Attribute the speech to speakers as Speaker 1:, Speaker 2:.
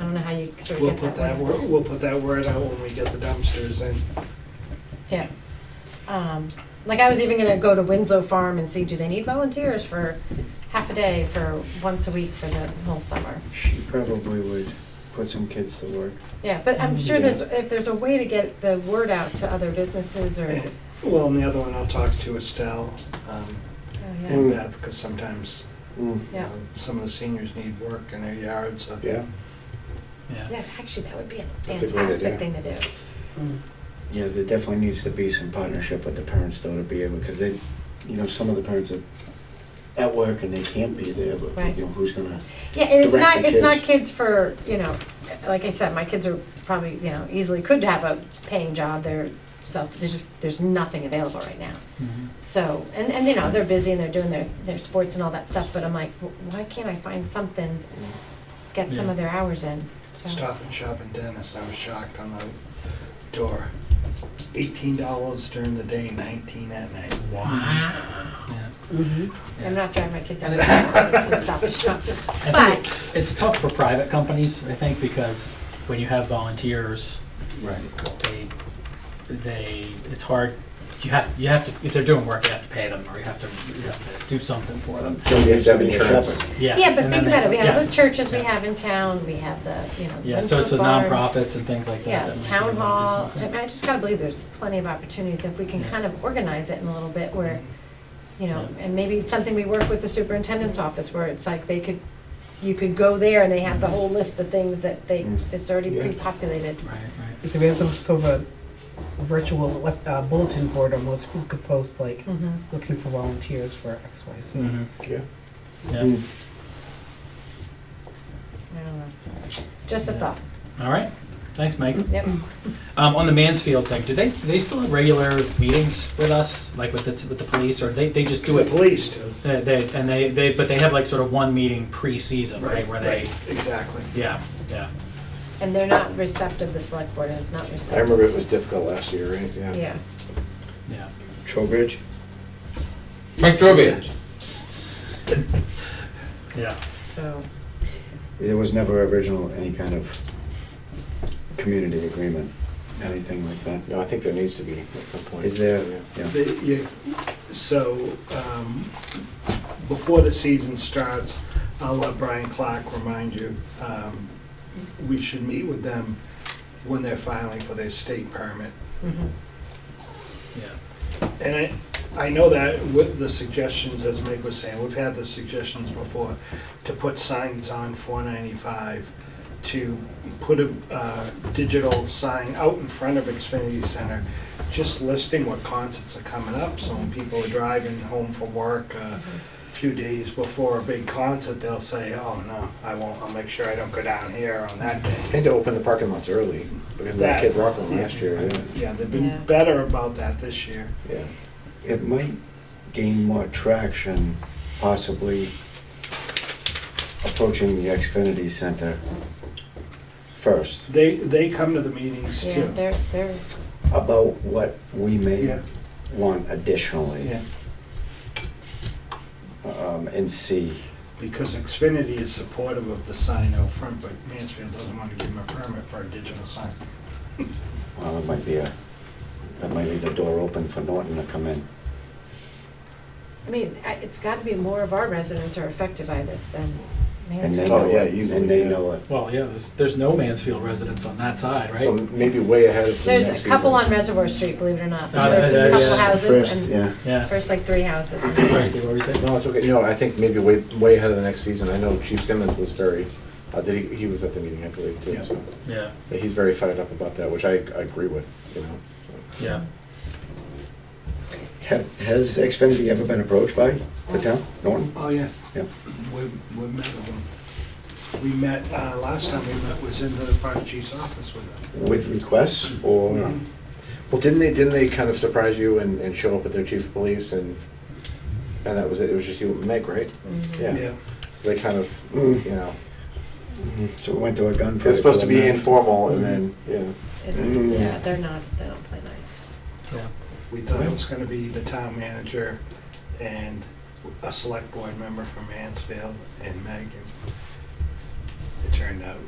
Speaker 1: don't know how you sort
Speaker 2: We'll
Speaker 1: of
Speaker 2: put
Speaker 1: get
Speaker 2: that,
Speaker 1: that
Speaker 2: wor-
Speaker 1: word.
Speaker 2: we'll put that word out when we get the dumpsters in.
Speaker 1: Yeah. Um, Like I was even gonna go to Winslow Farm and see, do they need volunteers for half a day, for once a week, for the whole summer?
Speaker 3: She probably would put some kids to work.
Speaker 1: Yeah, but I'm sure there's,
Speaker 2: Mm-hmm.
Speaker 1: if there's a way to get the word out to other businesses or,
Speaker 2: And- Eh, Well, and the other one, I'll talk to Estelle um,
Speaker 1: oh,
Speaker 2: and
Speaker 4: Mm.
Speaker 1: yeah.
Speaker 2: Beth, because sometimes
Speaker 3: Mm.
Speaker 2: you
Speaker 1: Yeah.
Speaker 2: know, some of the seniors need work in their yards. so-
Speaker 4: Yeah.
Speaker 2: uh,
Speaker 1: Yeah, actually, that would be a
Speaker 4: That's a great
Speaker 1: fantastic
Speaker 4: idea.
Speaker 1: thing to do.
Speaker 3: Yeah, there definitely needs to be some partnership with the parents though to be able, because they, you know, some of the parents are at work and they can't be there, but
Speaker 1: Right.
Speaker 3: you know, who's gonna?
Speaker 1: Yeah, and it's
Speaker 3: Direct
Speaker 1: not,
Speaker 3: the
Speaker 1: it's not
Speaker 3: kids.
Speaker 1: kids for, you know, like I said, my kids are probably, you know, easily could have a paying job, they're self, there's just, there's nothing available right now.
Speaker 5: Mm-hmm.
Speaker 1: So, and, and you know, they're busy and they're doing their, their sports and all that stuff, but I'm like, "Wh- why can't I find something, get some of their hours in? So-
Speaker 2: Stop and Shop and Dennis, I was shocked on the door. Eighteen dollars during the day, nineteen at night.
Speaker 1: I'm not driving my kid down to Boston, so stop and shop. But,
Speaker 5: It's tough for private companies, I think, because when you have volunteers,
Speaker 2: Right.
Speaker 5: they, they, it's hard. You have, you have to, if they're doing work, you have to pay them, or you have to, you have to do something for them.
Speaker 3: Some kids have insurance.
Speaker 5: Yeah.
Speaker 1: yeah, but
Speaker 5: and
Speaker 1: think
Speaker 5: then
Speaker 1: about it, we
Speaker 5: they-
Speaker 1: have
Speaker 5: yeah.
Speaker 1: the churches we
Speaker 5: Yeah.
Speaker 1: have in town, we have the, you know.
Speaker 5: Yeah, so it's the
Speaker 1: Winslow Farms.
Speaker 5: nonprofits and things like that.
Speaker 1: Yeah,
Speaker 5: that
Speaker 1: the
Speaker 5: might
Speaker 1: town
Speaker 5: be able
Speaker 1: hall,
Speaker 5: to do
Speaker 1: I mean,
Speaker 5: something.
Speaker 1: I just gotta believe there's plenty of opportunities if we can
Speaker 5: Yeah.
Speaker 1: kind of organize it in a little bit where, you know,
Speaker 5: Yeah.
Speaker 1: and maybe it's something we work with the superintendent's office where it's like they could, you could go there and they have the whole list of things that they,
Speaker 3: Mm.
Speaker 1: that's already
Speaker 3: Yeah.
Speaker 1: pre-populated.
Speaker 5: Right, right.
Speaker 6: So we have some sort of a virtual uh, bulletin board almost, who could post like,
Speaker 1: Mhm.
Speaker 6: looking for volunteers for X, Y, Z.
Speaker 5: Mhm.
Speaker 2: Mm-hmm.
Speaker 4: Yeah.
Speaker 5: Yeah,
Speaker 3: Mm.
Speaker 1: I don't know. Just a
Speaker 5: Yeah.
Speaker 1: thought,
Speaker 5: all right. Thanks, Mike.
Speaker 1: yep.
Speaker 5: Um, on the Mansfield thing, do they, do they still have regular meetings with us, like with the, with the police, or they, they just do
Speaker 2: The
Speaker 5: it?
Speaker 2: police do.
Speaker 5: They, they, and they, they, but they have like sort of one meeting pre-season, right, where they,
Speaker 2: Right, Exactly.
Speaker 5: yeah, yeah.
Speaker 1: And they're not receptive, the select board is not receptive.
Speaker 4: I remember it was difficult last year, right?
Speaker 1: Yeah,
Speaker 5: Yeah.
Speaker 3: Trowbridge?
Speaker 7: Mike Drobia.
Speaker 5: Yeah.
Speaker 1: so,
Speaker 3: There was never original, any kind of community agreement, anything like that.
Speaker 4: No, I think there needs to be at some point.
Speaker 3: Is there,
Speaker 4: Yeah.
Speaker 3: yeah.
Speaker 2: The- you- So, um, before the season starts, I'll let Brian Clark remind you, um, we should meet with them when they're filing for their state permit.
Speaker 1: mhm.
Speaker 5: Yeah.
Speaker 2: And I, I know that with the suggestions, as Mike was saying, we've had the suggestions before, to put signs on four ninety-five, to put a, uh, digital sign out in front of Xfinity Center, just listing what concerts are coming up, so when people are driving home from work, uh, a few days before a big concert, they'll say, oh, no, I won't, I'll make sure I don't go down here on that day.
Speaker 4: Had to open the parking lots early because of that
Speaker 2: That-
Speaker 4: Kid Rock one last year, yeah.
Speaker 2: Yeah, they've
Speaker 1: Yeah.
Speaker 2: been better about that this year.
Speaker 4: Yeah.
Speaker 3: it might gain more traction possibly approaching the Xfinity Center first
Speaker 2: They, they come to the meetings too.
Speaker 1: yeah, they're, they're,
Speaker 3: about what we may
Speaker 2: Yeah.
Speaker 3: want additionally
Speaker 2: Yeah.
Speaker 3: um, and see.
Speaker 2: Because Xfinity is supportive of the sign out front, but Mansfield doesn't want to give them a permit for a digital sign.
Speaker 3: Well, it might be a, that might leave the door open for Norton to come in.
Speaker 1: I mean, I- it's gotta be more of our residents are affected by this than
Speaker 3: And
Speaker 1: Mansfield.
Speaker 3: they
Speaker 4: Oh,
Speaker 3: know
Speaker 4: yeah,
Speaker 3: it,
Speaker 4: easily,
Speaker 3: and they
Speaker 4: yeah.
Speaker 3: know it.
Speaker 5: Well, yeah, there's, there's no Mansfield residents on that side, right?
Speaker 4: So maybe way ahead of the next
Speaker 1: There's a couple on
Speaker 4: season.
Speaker 1: Reservoir Street, believe it or not.
Speaker 5: Oh,
Speaker 1: There's
Speaker 5: yeah,
Speaker 1: a couple
Speaker 5: yeah.
Speaker 1: houses
Speaker 3: First,
Speaker 1: and
Speaker 3: yeah.
Speaker 5: yeah.
Speaker 1: first like three houses.
Speaker 5: Sorry, Steve, what were you saying?
Speaker 4: No, it's okay. No, I think maybe way, way ahead of the next season. I know Chief Simmons was very, uh, did he, he was at the meeting, I believe, too,
Speaker 2: Yeah.
Speaker 4: so.
Speaker 5: Yeah,
Speaker 4: He's very fired up about that, which I, I agree with, you know. so.
Speaker 5: yeah.
Speaker 3: Have, has Xfinity ever been approached by the town, Norton?
Speaker 2: Oh, yeah.
Speaker 3: Yeah.
Speaker 2: We, we met with them. We met, uh, last time we met was in the fire chief's office with them.
Speaker 3: With requests
Speaker 2: Oh,
Speaker 3: or?
Speaker 4: Well, didn't they, didn't they kind of surprise you and, and show up with their chief of police and, and that was it? It was just you and Meg, right? Yeah. So they kind of,
Speaker 3: Mm.
Speaker 4: you know,
Speaker 3: So we went to a gunfight.
Speaker 4: it was supposed to be
Speaker 3: for a night.
Speaker 4: informal and then, yeah.
Speaker 1: It's,
Speaker 3: Mm.
Speaker 1: yeah, they're not, they don't play nice.
Speaker 2: We thought it was going to be the town manager and a select board member from Mansfield and Megan. It turned out